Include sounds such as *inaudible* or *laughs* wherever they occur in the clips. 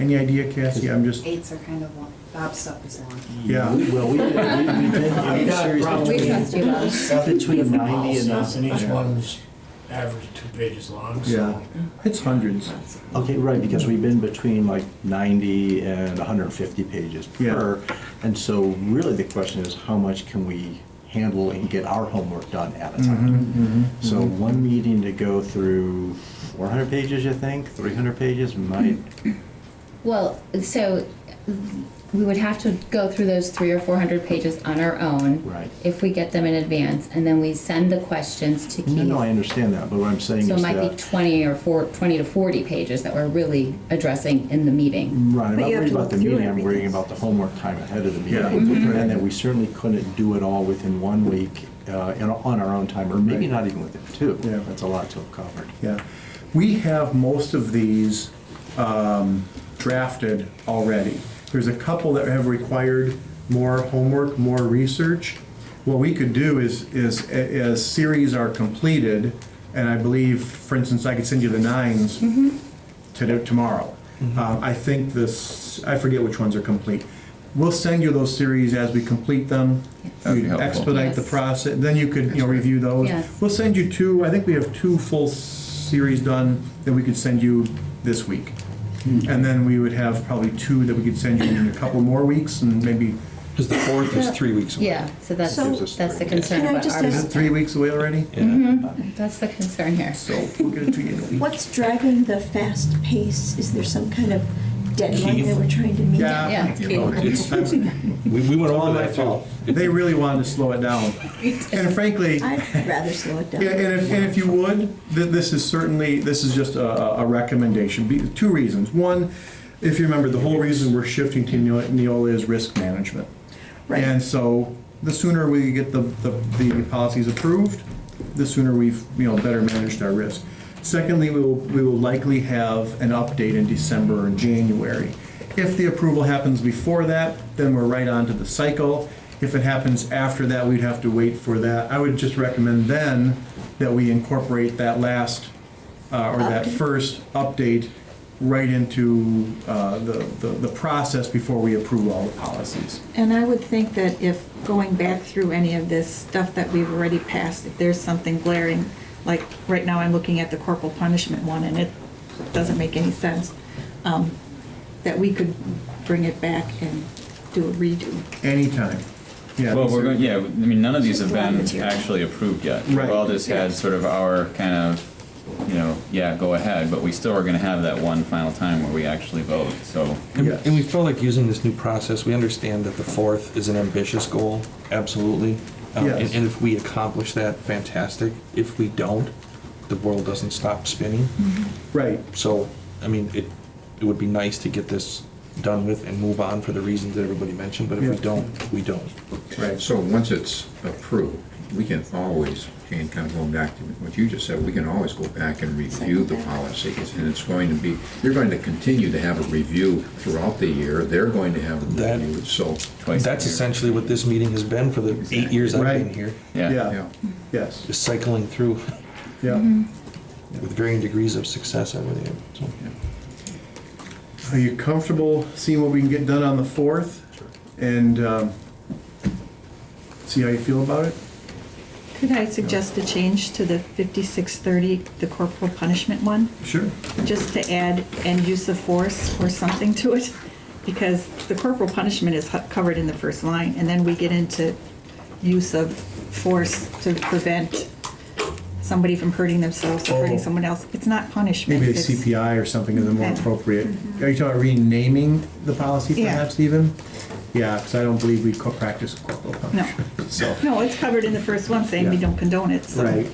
Any idea, Cassie? I'm just, Eights are kind of long, Bob's stuff is long. Mm. yeah. We- Well, we did, we we did, I'm Yeah, serious, probably. *laughs* We trust you, Bob. between Different ninety and policies, And each a. one's average two pages long, Yeah. so. It's hundreds. Okay, right, because we've been between like 90 and 150 pages Yeah. per. And so really the question is, how much can we handle and get our homework done at a Mm-hmm. time? So one meeting to go through 400 pages, you think, 300 pages might, Well, so we would have to go through those three or four hundred pages on our own. Right. If we get them in advance, and then we send the questions to Keith. no, no, I understand that, but what I'm saying So it is might be that. twenty or four, twenty to forty pages that we're really addressing in the meeting. Right, I'm But not you have worried to about the look through meeting, I'm worrying everything. Mm-hmm. about the homework time ahead of the Yeah. meeting. And that we certainly couldn't do it all within one week, uh, and on our own time, or maybe Right. not even within two. Yeah. That's a lot to have covered. Yeah. We have most of these um, drafted already. There's a couple that have required more homework, more research. What we could do is, is, a- as series are completed, and I believe, for instance, I could send you the nines today, tomorrow. Um, I think this, I forget which ones are complete. We'll send you those series as we complete them. That'd be You helpful. Expedite the Yes. process, then you could, you know, review those. Yes. We'll send you two, I think we have two full series done that we could send you this week. And then we would have probably two that we could send you in a couple more weeks and maybe, Because the fourth is three weeks away. Yeah, so that's, So- Gives us that's the Mm. three. concern Can I about just is it ours. ask- three weeks away already? That's the concern here. So we'll get it to you in a week. What's driving the fast pace? Is there some kind of deadline that we're trying to meet? Yeah. Yeah, Oh, It's- *laughs* We, we went over that too. They really wanted to slow it down. And frankly, I'd rather slow it down. Yeah, and if, and if you would, th- this is certainly, this is just a, a recommendation, Be- two reasons. One, if you remember, the whole reason we're shifting to Neo- Neola is risk management. Right. And so, the sooner we get the, the, the policies approved, the sooner we've, you know, better managed our risk. Secondly, we will, we will likely have an update in December or January. If the approval happens before that, then we're right onto the cycle. If it happens after that, we'd have to wait for that. I would just recommend then that we incorporate that last, uh, or that first update right into, uh, the, the, the process before we approve all the policies. And I would think that if, going back through any of this stuff that we've already passed, if there's something glaring, like, right now I'm looking at the corporal punishment one, and it doesn't make any sense, um, that we could bring it back and do a redo. Anytime. Yeah. Well, these we're are- going, yeah, I mean, none of these have Just a lot of been material. actually approved yet. Right. We've all just had sort of our kind of, you know, yeah, go ahead, but we still are gonna have that one final time where we actually vote, so. And, Yes. and we felt like using this new process, we understand that the fourth is an ambitious goal, absolutely. Um, Yes. and, and if we accomplish that, fantastic. If we don't, the world doesn't stop spinning. Right. So, I mean, it, it would be nice to get this done with and move on for the reasons that everybody mentioned, but if we Yeah. don't, we don't. Right. So once it's approved, we can always, Jane, kind of going back to what you just said, we can always go back and review the policies. And it's going to be, you're going to continue to have a review throughout the year. They're going to have a That- review, so, twice a That's year. essentially what this meeting has been for the eight years I've been Right. here, Yeah, Yeah. yeah. Yes. just Mm-hmm. cycling through Yeah. with varying degrees of success, I really am, so. Are you comfortable seeing what we can get done on the fourth? And um, see how you feel about it? Could I suggest a change to the 5630, the corporal punishment one? Sure. just to add "and use of force" or something to it, because the corporal punishment is hu- covered in the first line, and then we get into use of force to prevent somebody from hurting themselves or hurting Oh. someone else. It's not punishment. Maybe a it's- Mm-hmm. CPI or something is more Okay. appropriate. Are you talking about renaming the policy Yeah. perhaps even? Yeah, because I don't believe we co- practice corporal punishment. So, No, it's covered in the first one, saying we Yeah. don't condone it, so. right.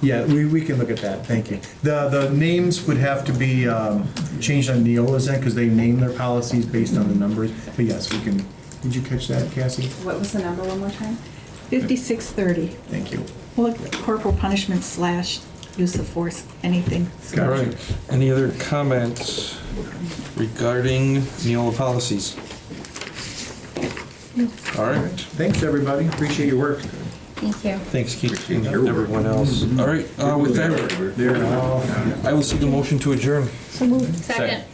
Yeah, we, we can look at that, thank you. The, the names would have to be um, changed on Neola's end because they name their policies based on the numbers. But yes, we can, did you catch that, Cassie? What was the number one more time? 5630, Thank you. well, corporal punishment slash use of force, anything. so- Got All it. right, any other comments regarding Neola policies? All right, Thanks, everybody. Appreciate your work. Thank you. thanks Keith and your work. everyone else. All right, uh, with that, I will see the motion to adjourn. Second.